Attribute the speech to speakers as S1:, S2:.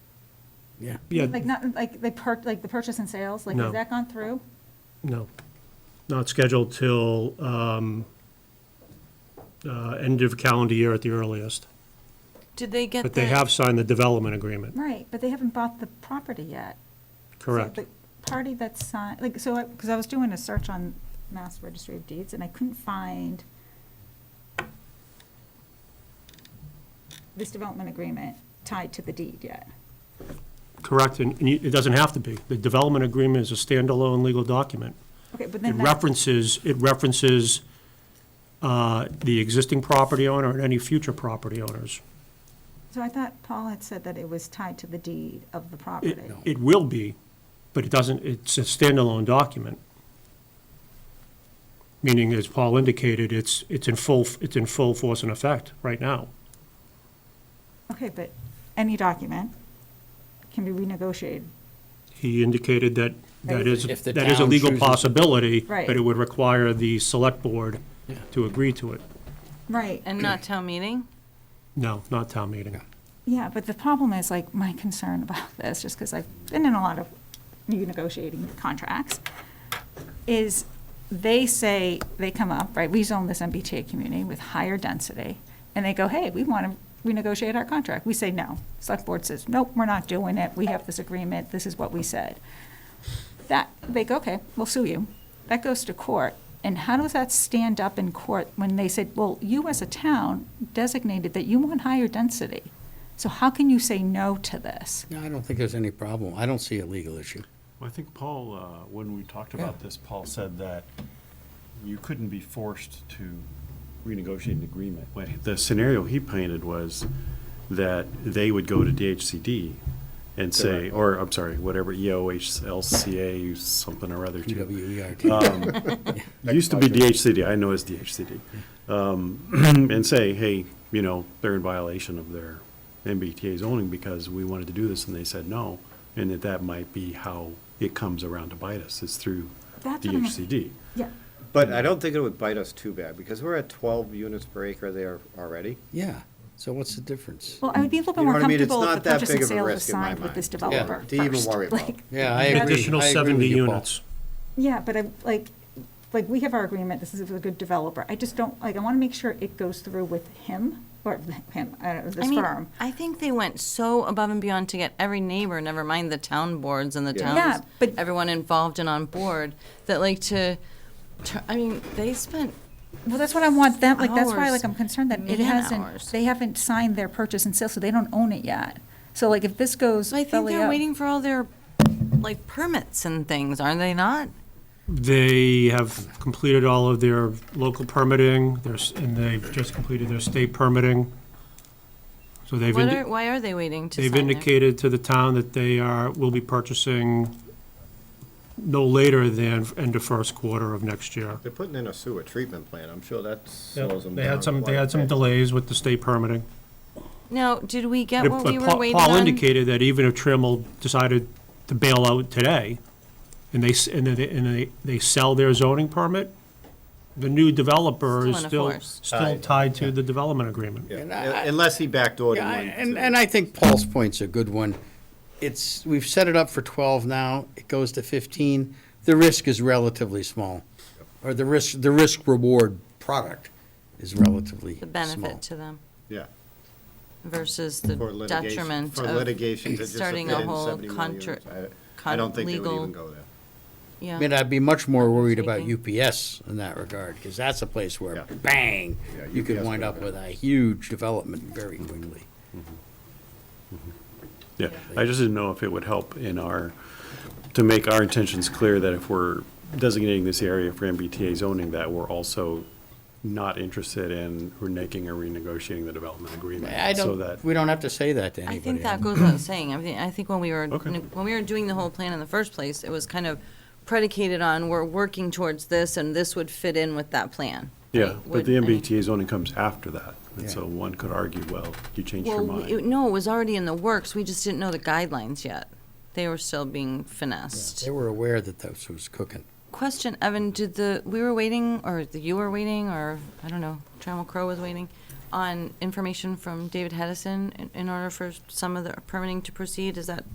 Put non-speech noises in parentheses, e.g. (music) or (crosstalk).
S1: Yeah.
S2: Yeah,
S3: Like not, like the per, like the purchase and sales, like
S2: No.
S3: has that gone through?
S2: no, not scheduled till um, uh, end of calendar year at the earliest.
S4: Did they get
S2: But they
S4: that-
S2: have signed the development agreement,
S3: Right, but they haven't bought the property yet. So
S2: correct?
S3: the Party that's signed, like, so, I because I was doing a search on Mass Registry of Deeds and I couldn't find this development agreement tied to the deed yet.
S2: Correct, and and you- it doesn't have to be. The development agreement is a standalone legal document.
S3: Okay, but
S2: It
S3: then that,
S2: references, it references uh, the existing property owner and any future property owners.
S3: so I thought Paul had said that it was tied to the deed of the
S2: It,
S3: property.
S2: it will be, but it doesn't, it's a standalone document. Meaning, as Paul indicated, it's, it's in full, it's in full force and effect right now.
S3: Okay, but any document can be renegotiated.
S2: He indicated that that is,
S1: If the
S2: that is a
S1: town
S2: legal
S1: chooses-
S2: possibility,
S3: Right.
S2: but it would require the select board to agree to it.
S3: Right.
S4: and
S5: (clears throat)
S4: not town meeting?
S2: No, not town meeting.
S3: Yeah, but the problem is, like, my concern (laughs) about this, just because I've been in a lot of negotiating contracts, is they say, they come up, right, we zone this MBTA community with higher density, and they go, hey, we want to renegotiate our contract. We say, no. Select board says, nope, we're not doing it. We have this agreement. This is what we said. That, they go, okay, we'll sue you. That goes to court. And how does that stand up in court when they said, well, you as a town designated that you want higher density? So how can you say no to this?
S1: No, I don't think there's any problem. I don't see a legal issue.
S6: Well, I think Paul, uh, when we talked about
S1: Yeah.
S6: this, Paul said that you couldn't be forced to renegotiate an agreement. What- The scenario he painted was that they would go to DHCD and say, or, I'm sorry, whatever, E EOHLCA, something or other. to-
S1: E
S2: Uh,
S1: QWERT.
S6: Used to be DHCD, I know it's DHCD. Um, And say, hey, you know, they're in violation of their MBTA zoning because we wanted to do this and they said no. And that that might be how it comes around to bite us, is through
S3: That's what I'm-
S6: DHCD.
S3: Yeah.
S5: But I don't think it would bite us too bad, because we're at twelve units per acre there already.
S1: Yeah, so what's the difference?
S3: Well, I would be a little bit
S5: You know
S3: more
S5: what I mean? It's
S3: comfortable if
S5: not
S3: the
S5: that
S3: purchase and
S5: big of a
S3: sale was
S5: risk in my
S3: signed with this
S5: mind. Yeah,
S3: developer
S5: to even
S3: first.
S5: worry about.
S3: Like,
S1: Yeah, I agree.
S2: Additional
S1: I agree with
S2: 70
S1: you, Paul.
S2: units.
S3: Yeah, but I, like, like, we have our agreement, this is a good developer. I just don't, like, I want to make sure it goes through with him, or him, I don't know,
S4: I
S3: this
S4: mean,
S3: firm.
S4: I think they went so above and beyond to get every neighbor, never mind the town boards and the
S5: Yeah.
S3: Yeah,
S4: towns,
S3: but-
S4: everyone involved and on board, that like to, to- I mean, they spent,
S3: Well, that's what I want them, like, that's why,
S4: Hours.
S3: like, I'm concerned that it
S4: Man
S3: hasn't,
S4: hours.
S3: they haven't signed their purchase and sale, so they don't own it yet. So like, if this goes
S4: so I think
S3: belly
S4: they're
S3: up-
S4: waiting for all their, like, permits and things, aren't they not?
S2: They have completed all of their local permitting, their s- and they've just completed their state permitting. So they've,
S4: What
S2: indi-
S4: are, why are they waiting to
S2: they've
S4: sign it?
S2: indicated to the town that they are, will be purchasing no later than end of first quarter of next year.
S5: They're putting in a sewer treatment plant, I'm sure that slows them down.
S2: They had some, they
S5: quite a
S2: had some
S5: bit.
S2: delays with the state permitting.
S4: Now, did we get
S2: But
S4: what we were
S2: Paul-
S4: waiting
S2: Paul
S4: on?
S2: indicated that even if Trammell decided to bail out today, and they, s- and they, and they, they sell their zoning permit, the new developer is
S4: Still in
S2: still,
S4: force.
S2: still tied to the development agreement.
S5: Yeah,
S1: And I-
S5: Unless he backdoored
S1: Yeah, I-
S5: one.
S1: and, and I think Paul's point's a good one. It's, we've set it up for 12 now, it goes to 15. The risk is relatively small, or the risk, the risk reward product is relatively
S4: The
S1: small.
S4: benefit to them
S5: Yeah,
S4: versus the
S5: for litigation.
S4: detriment
S5: For
S4: of
S5: litigation to just
S4: starting
S5: fit
S4: a
S5: in
S4: whole
S5: 71
S4: contra-
S5: units. I- I
S4: con-
S5: don't think they would
S4: legal-
S5: even go there.
S4: yeah.
S1: I mean, I'd be much more worried about
S4: Speaking.
S1: UPS in that regard, because that's a place where,
S5: Yeah.
S1: bang,
S5: Yeah,
S1: you could
S5: UPS
S1: wind
S5: would
S1: up
S5: be-
S1: with a huge development very quickly.
S6: Yeah, I just didn't know if it would help in our, to make our intentions clear that if we're designating this area for MBTA zoning, that we're also not interested in reneging or renegotiating the development agreement.
S1: I
S6: so
S1: don't,
S6: that-
S1: we don't have to say that to
S4: I
S1: anybody.
S4: think that goes without saying. I mean, I think when we were,
S6: Okay.
S4: when we were doing the whole plan in the first place, it was kind of predicated on we're working towards this and this would fit in with that plan.
S6: Yeah, but
S4: Would-
S6: the
S4: I mean-
S6: MBTA zoning comes after that,
S1: Yeah.
S6: and so one could argue, well, you changed your
S4: Well, it-
S6: mind.
S4: no, it was already in the works. We just didn't know the guidelines yet. They were still being finessed.
S1: They were aware that this was cooking.
S4: Question, Evan, did the, we were waiting, or the- you were waiting, or, I don't know, Trammell Crow was waiting on information from David Hedison in- in order for some of the permitting to proceed? Is that